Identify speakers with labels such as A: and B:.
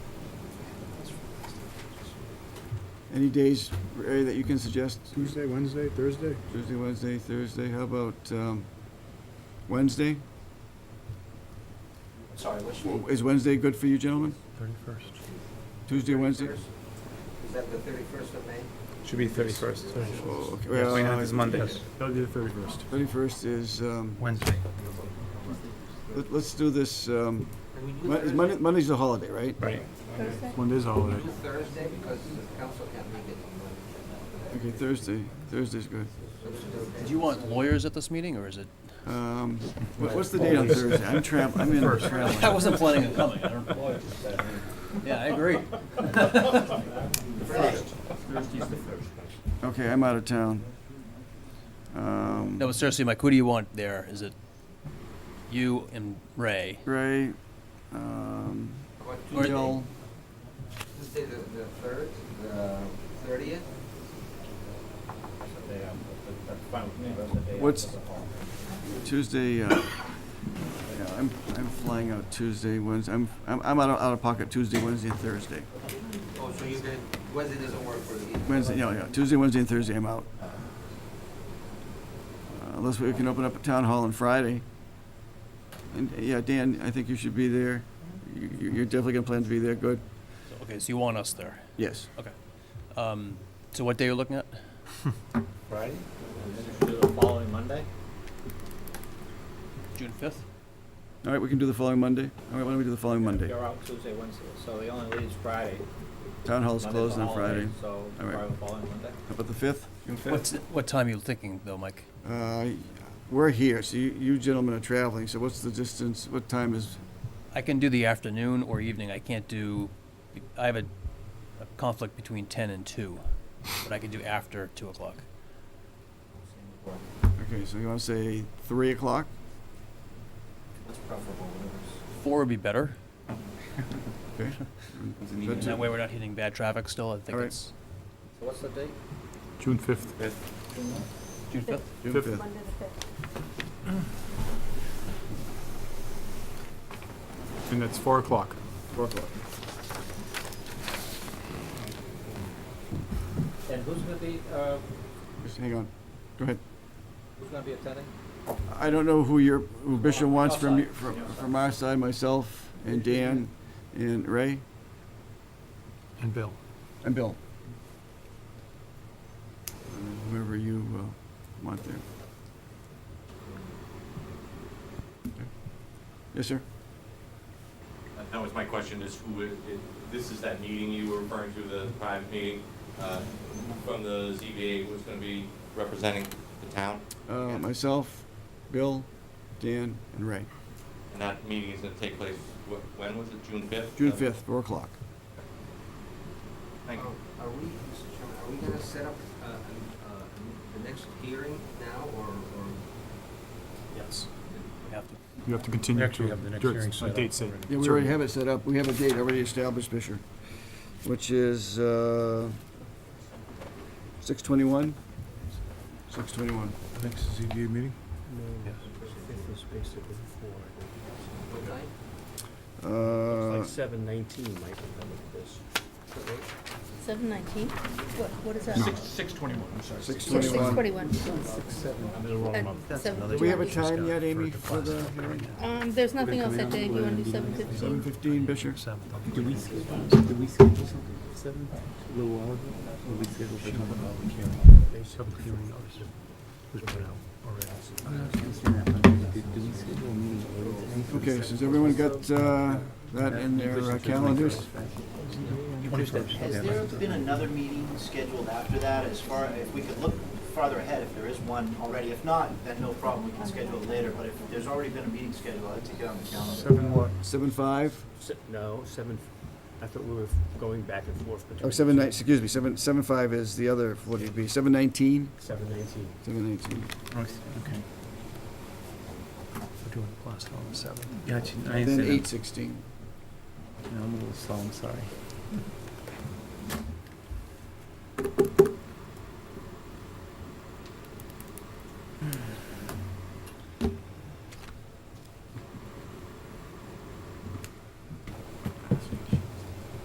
A: Any days, Ray, that you can suggest?
B: Tuesday, Wednesday, Thursday?
A: Tuesday, Wednesday, Thursday, how about um, Wednesday?
C: Sorry, which
A: W-
C: one?
A: Is Wednesday good for you gentlemen?
D: Thirty-first.
A: Tuesday, Wednesday?
C: Is that the thirty-first of May?
E: Should be thirty-first.
A: Oh, okay. Well,
E: Twenty-ninth is Monday.
D: Yes,
B: That'll be the thirty-first.
A: 31st is, um,
D: Wednesday.
A: let- let's do this, um,
C: Can we do
A: Mon- is Monday-
C: Thursday?
A: Monday's a holiday, right?
E: Right.
F: Thursday?
B: Monday's a holiday.
C: Do Thursday, because the council can't make it on Monday.
A: Okay, Thursday, Thursday's good.
G: Do you want lawyers at this meeting, or is it?
A: Um, what- What's the date on Thursday? I'm travel, I'm in
G: I
A: traveling.
G: wasn't planning on coming. I don't- Yeah, I agree.
A: Okay, I'm out of town. Um,
G: No, but seriously, Mike, who do you want there? Is it you and Ray?
A: Ray, um,
C: What,
G: Or-
A: Jill,
C: Tuesday, the, the third, the thirtieth?
A: What's- Tuesday, uh, yeah, I'm, I'm flying out Tuesday, Wednesday, I'm, I'm I'm out of, out of pocket Tuesday, Wednesday, and Thursday.
C: Oh, so you can, Wednesday doesn't work for you?
A: Wednesday, yeah, yeah, Tuesday, Wednesday, and Thursday, I'm out. Uh, Unless we can open up a town hall on Friday. And, yeah, Dan, I think you should be there. You, you- you're definitely gonna plan to be there, good?
G: Okay, so you want us there.
A: Yes.
G: Um, so what day are you looking at?
H: Friday? Do the following Monday?
G: June fifth?
A: All right, we can do the following Monday. All right, why don't we do the following Monday?
H: You're out Tuesday, Wednesday, so the only leaves Friday.
A: Town hall's
H: Monday's
A: closed
H: a
A: on
H: holiday,
A: Friday.
H: So
A: All right.
H: probably the following Monday.
A: How about the fifth?
G: What's, what time are you thinking, though, Mike?
A: Uh, We're here, so you- you gentlemen are traveling, so what's the distance, what time is,
G: I can do the afternoon or evening. I can't do, I have a, a conflict between ten and two, but I can do after two o'clock.
A: okay, so you want to say 3 o'clock?
C: What's preferable, whatever's.
G: Four would be better.
A: Okay. Is that
G: And that
A: too-
G: way we're not hitting bad traffic still. I think
A: Alright.
G: it's
H: So what's the date?
B: June fifth.
G: June fifth.
A: June
B: Fifth.
A: fifth.
F: Monday the fifth.
B: And that's four o'clock. Four o'clock.
H: And who's gonna be, uh,
A: Just hang on. Go ahead.
H: who's gonna be attending?
A: I don't know who your, who Bishop wants from, you-
H: Outside.
A: from from our side, myself and Dan and Ray
D: And Bill.
A: and Bill. And then Whoever you uh, want there. Okay. Yes, sir?
I: Uh, That was my question, is who, would- it- this is that meeting you were referring to, the private meeting, uh, from the ZBA, who's going to be representing the town?
A: Uh, Myself, Bill, Dan, and Ray.
I: And that meeting is going to take place, wh- when was it, June 5th?
A: June 5th, 4 o'clock.
I: Thank you.
C: Um, Are are we, Mr. Chairman, are we gonna set up, uh, an- uh, the next hearing now, or, or?
D: Yes.
G: We have to.
B: You have to continue
D: Actually,
B: to,
D: have the next
B: dirt-
D: hearing
B: a
D: set up
B: date set.
D: already.
A: Yeah, we already have it set up. We have a date already established, Fisher, which is, uh, six twenty-one? Six twenty-one.
B: Next ZBA meeting?
D: Yes.
C: Fifth is
D: basically
C: What time?
A: Uh,
D: seven nineteen, Mike, at this.
C: What date?
F: Seven nineteen? What, what is that?
E: Six twenty-one, I'm sorry.
A: six
F: Six
A: twenty-one.
F: forty-one.
D: I'm in the wrong
F: And
D: month.
F: seven-
A: Do we have a time yet, Amy, for the hearing?
F: Um, there's nothing else that day, Do you wanna do seven
A: Seven
F: fifteen?
A: fifteen, Fisher?
D: Seven.
J: Did we schedule, did we schedule something for seven, a little while ago? Or we scheduled for something?
D: Public hearing notice was put out already.
J: I'm not answering that, but did, did we schedule a meeting early tonight? for the
A: Okay, so has
J: second?
A: everyone got, uh, that in their uh, calendars?
D: Twenty-first.
C: Has there been another meeting scheduled after that, as far, if we could look farther ahead, if there is one already? If not, then no problem, we can schedule it later, but if there's already been a meeting scheduled, I'd take it on the calendar.
B: Seven what?
A: Seven five,
J: No, seven, I thought we were going back and forth between.
A: oh, seven nine, excuse me, seven, seven five is the other, what do you be, seven nineteen?
J: Seven nineteen.
A: Seven nineteen.
J: Oh, Okay,
D: We're doing the last on the seventh.
J: gotcha, I
A: Then
J: understand.
A: eight sixteen.
J: No, I'm a little slow, I'm sorry.